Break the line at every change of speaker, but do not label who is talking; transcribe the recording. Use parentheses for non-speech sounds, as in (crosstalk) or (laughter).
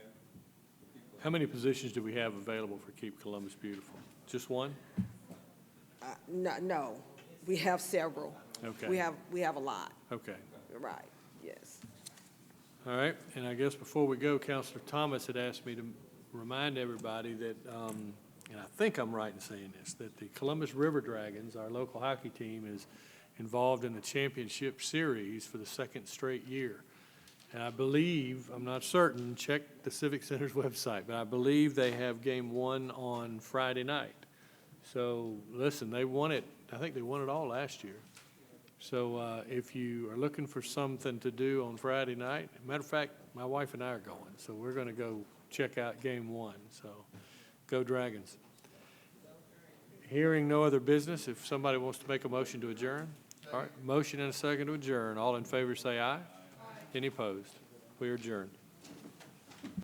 How many positions do we have available for Keep Columbus Beautiful? Just one?
Uh, No, no, we have several.
Okay.
We have, we have a lot,
Okay,
right, yes.
all right. And I guess before we go, Counselor Thomas had asked me to remind everybody that, um, and I think I'm right in saying this, that the Columbus River Dragons, our local hockey team, is involved in the championship series for the second straight year. And I believe, I'm not certain, check the Civic Center's (laughs) website, but I believe they have game one on Friday night. So, listen, they won it, I think they won it all last year. So uh, if you are looking for something to do on Friday night, matter of fact, my wife and I are going, so we're going to go check out game one, so go Dragons. Hearing no other business, if somebody wants to make a motion to adjourn, all right, motion and a second to adjourn, all in favor say aye. Any opposed? We are adjourned.